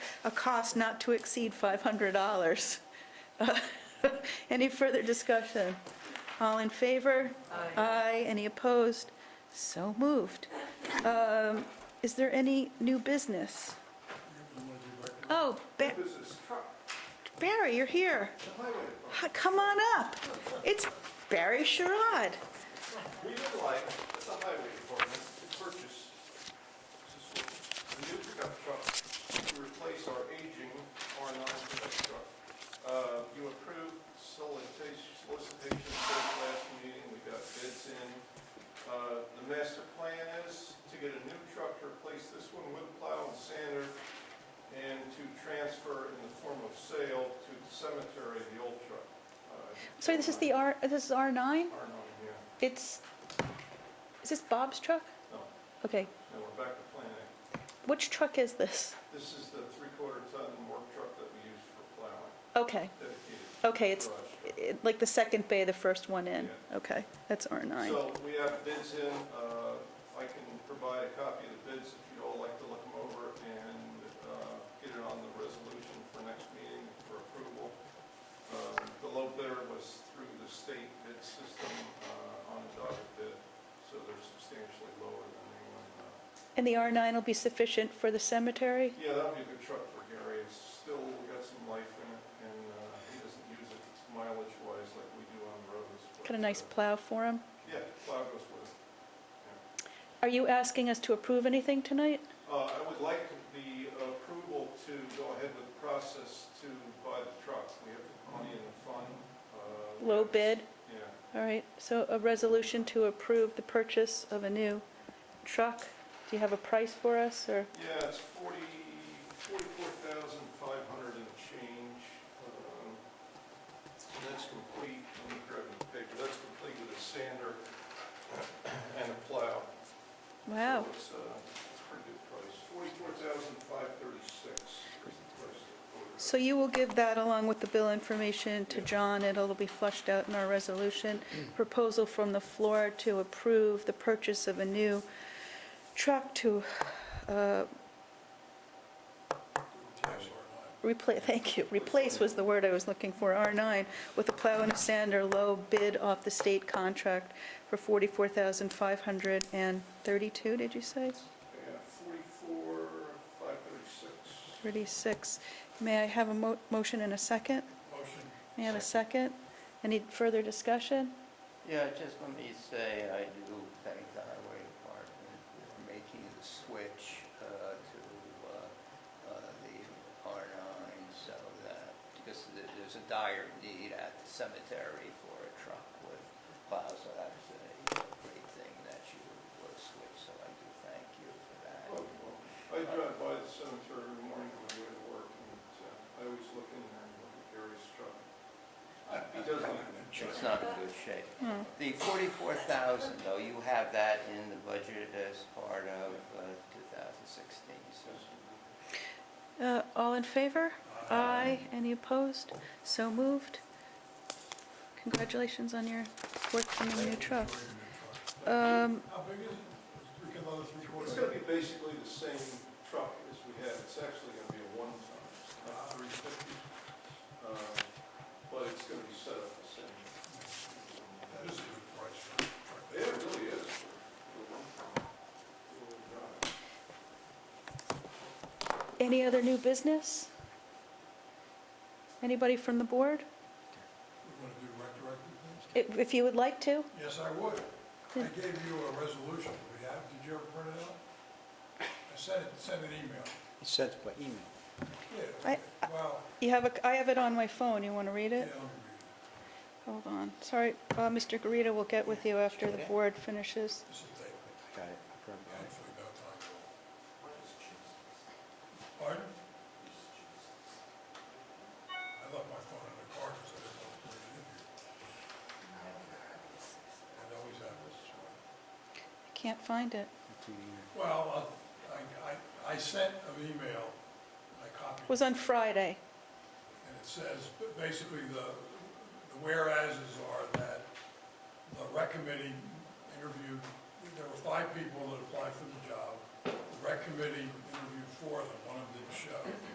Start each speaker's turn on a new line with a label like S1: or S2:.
S1: a cost not to exceed $500. Any further discussion? All in favor? Aye. Any opposed? So moved. Um, Is there any new business? Oh, Ba- Barry, you're here. Hi, Come on up. It's Barry Sherrod.
S2: We would like, as a highway department, to purchase this is a new pickup truck to replace our aging R9 pickup truck. Uh, You approved solicitation, solicitation for the last meeting, we got bids in. Uh, The master plan is to get a new truck to replace this one with plow and sander, and to transfer in the form of sale to the cemetery, the old truck. Uh,
S1: Sorry, this is the R, this is R9?
S2: R9, yeah,
S1: It's, is this Bob's truck?
S2: no,
S1: Okay,
S2: no, we're back to plan A.
S1: which truck is this?
S2: This is the three-quarter ton work truck that we use for plowing,
S1: Okay,
S2: dedicated
S1: okay, it's
S2: garage.
S1: it- like the second bay, the first one in.
S2: Yeah.
S1: Okay, that's R9.
S2: So we have bids in, uh, I can provide a copy of the bids if you'd all like to look them over and uh, get it on the resolution for next meeting for approval. Um, The low bidder was through the state bid system uh, on a dotted bid, so they're substantially lower than anyone. uh,
S1: And the R9 will be sufficient for the cemetery?
S2: Yeah, that would be a good truck for Gary, it's still got some life in it, and uh, he doesn't use it mileage-wise like we do on roads. but,
S1: Got a nice
S2: uh,
S1: plow for him?
S2: Yeah, plow goes with it.
S1: Are you asking us to approve anything tonight?
S2: Uh, I would like the approval to go ahead with the process to buy the truck, we have the money in the fund. uh, we
S1: Low
S2: have-
S1: bid?
S2: Yeah,
S1: All right, so a resolution to approve the purchase of a new truck. Do you have a price for us, or?
S2: yeah, it's forty, forty-four thousand five hundred and change. um, And that's complete, let me grab the paper, that's complete with a sander and a plow.
S1: Wow,
S2: So It's uh, it's a pretty good price, forty-four thousand five thirty-six is the price of the order.
S1: so you will give that along with the bill information to
S2: Yeah.
S1: John, and it'll be flushed out in our resolution. Proposal from the floor to approve the purchase of a new truck to uh, Replace, thank you, replace was the word I was looking for, R9, with a plow and a sander, low bid off the state contract for 44532 did you say?
S2: Yeah, forty-four five thirty-six.
S1: 36. May I have a mo- motion and a second?
S2: Motion.
S1: May I have a second? Any further discussion?
S3: Yeah, just let me say, I do thank the highway department for making the switch uh, to uh, uh, the R9 so that, because th- there's a dire need at the cemetery for a truck with plows, so that's a great thing that you uh, switched, so I do thank you for that.
S2: I drive by the cemetery every morning on my way to work, and uh, I always look in there and look at Gary's truck. He doesn't even check.
S3: It's not in good shape.
S1: Hmm.
S3: The 44,000, though, you have that in the budget as part of uh, 2016, so.
S1: Uh, All in favor? Aye. Any opposed? So moved. Congratulations on your work on the new truck. Um,
S4: How big is it? We can load it three
S2: It's
S4: quarters.
S2: gonna be basically the same truck as we had, it's actually gonna be a one-ton, it's not three fifty. uh, But it's gonna be set up the same.
S4: That is a good price for a truck.
S2: Yeah, it really is. for- for one-ton. Four-wheel drive.
S1: Any other new business? Anybody from the board?
S4: We want to do retroactive things?
S1: If if you would like to.
S4: Yes, I would. I gave you a resolution. We have, did you ever print it out? I sent it, sent an email.
S5: It's sent by email.
S4: Yeah,
S1: I-
S4: well,
S1: You have, a. I have it on my phone. You want to read
S4: yeah, let
S1: it?
S4: me read it.
S1: Hold on. Sorry, uh, Mr. Garita will get with you after the board finishes.
S4: This is David.
S5: Got it.
S4: Actually, no time at all. Pardon? I left my phone in the car because I didn't know where it is. It always happens.
S1: Can't find it.
S4: Well, uh, I, I, I sent an email, I copied.
S1: Was on Friday.
S4: And it says, but basically, the the whereases are that the rec committee interviewed, there were five people that applied for the job. The rec committee interviewed four of them, one of them didn't show.